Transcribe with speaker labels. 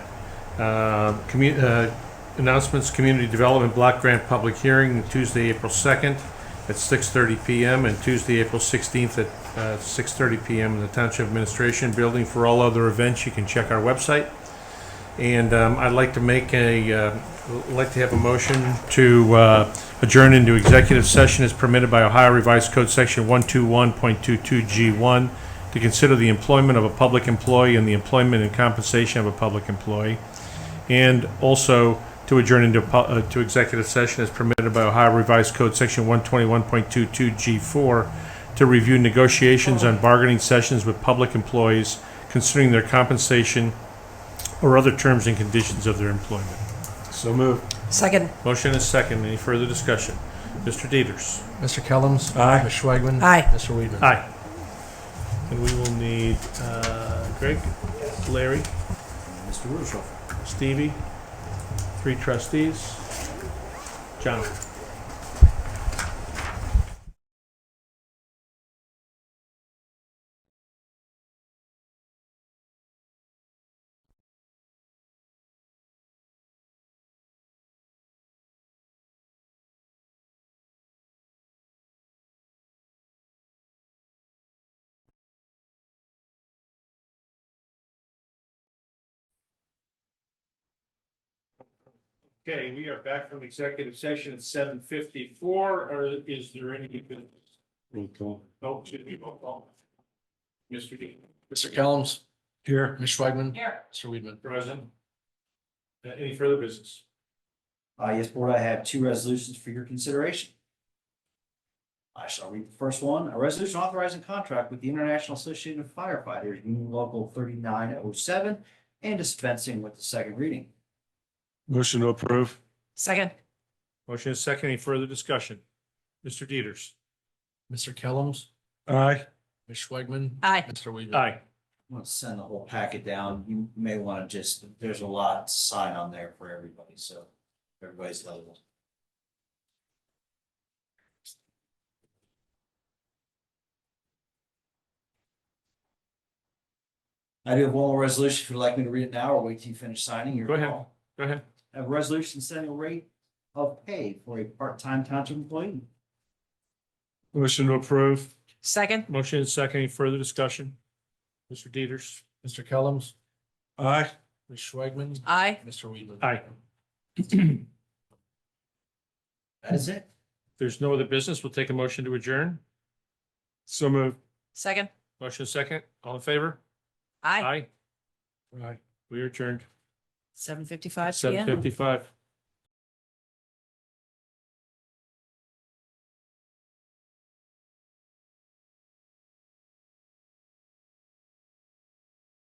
Speaker 1: Uh, commu- uh, Announcements, Community Development Block Grant Public Hearing, Tuesday, April 2nd at 6:30 PM, and Tuesday, April 16th at uh, 6:30 PM in the Township Administration Building. For all other events, you can check our website. And um, I'd like to make a, uh, I'd like to have a motion to uh, adjourn into executive session as permitted by Ohio Revised Code Section 121.22G1 to consider the employment of a public employee and the employment and compensation of a public employee, and also to adjourn into, pu- uh, to executive session as permitted by Ohio Revised Code Section 121.22G4 to review negotiations on bargaining sessions with public employees considering their compensation or other terms and conditions of their employment.
Speaker 2: So move.
Speaker 3: Second.
Speaker 1: Motion is second. Any further discussion? Mr. Dieters.
Speaker 4: Mr. Kellums.
Speaker 2: Aye.
Speaker 4: Ms. Schwagman.
Speaker 3: Aye.
Speaker 4: Mr. Weedman.
Speaker 1: Aye. And we will need uh, Greg, Larry,
Speaker 2: Mr. Rudolph.
Speaker 1: Stevie, three trustees, Jonathan. Okay, we are back from executive session at seven fifty-four, or is there any business? Oh, excuse me, roll call. Mr. Dean.
Speaker 4: Mr. Kellums. Here. Ms. Schwagman.
Speaker 3: Here.
Speaker 4: Mr. Weedman.
Speaker 1: Present. Uh, Any further business?
Speaker 2: Uh, yes, board, I have two resolutions for your consideration. I shall read the first one, a resolution authorizing contract with the International Association of Firefighters, Union Local thirty-nine oh seven, and dispensing with the second reading.
Speaker 5: Motion to approve.
Speaker 3: Second.
Speaker 1: Motion is second. Any further discussion? Mr. Dieters.
Speaker 4: Mr. Kellums.
Speaker 5: Aye.
Speaker 4: Ms. Schwagman.
Speaker 3: Aye.
Speaker 4: Mr. Weedman.
Speaker 1: Aye.
Speaker 2: I'm gonna send the whole packet down. You may want to just, there's a lot to sign on there for everybody, so everybody's leveled. I do have one more resolution. If you'd like me to read it now or wait till you finish signing, your
Speaker 1: Go ahead.
Speaker 2: call.
Speaker 1: Go ahead.
Speaker 2: I have a resolution setting a rate of pay for a part-time township employee.
Speaker 5: Motion to approve.
Speaker 3: Second.
Speaker 1: Motion is second. Any further discussion? Mr. Dieters.
Speaker 4: Mr. Kellums.
Speaker 5: Aye.
Speaker 4: Ms. Schwagman.
Speaker 3: Aye.
Speaker 4: Mr. Weedman.
Speaker 1: Aye.
Speaker 2: That is it.
Speaker 1: There's no other business. We'll take a motion to adjourn.
Speaker 5: So moved.
Speaker 3: Second.
Speaker 1: Motion is second. All in favor?
Speaker 3: Aye.
Speaker 1: Aye.
Speaker 4: Aye.
Speaker 1: We are adjourned.
Speaker 3: Seven fifty-five
Speaker 1: Seven
Speaker 3: PM.
Speaker 1: fifty-five.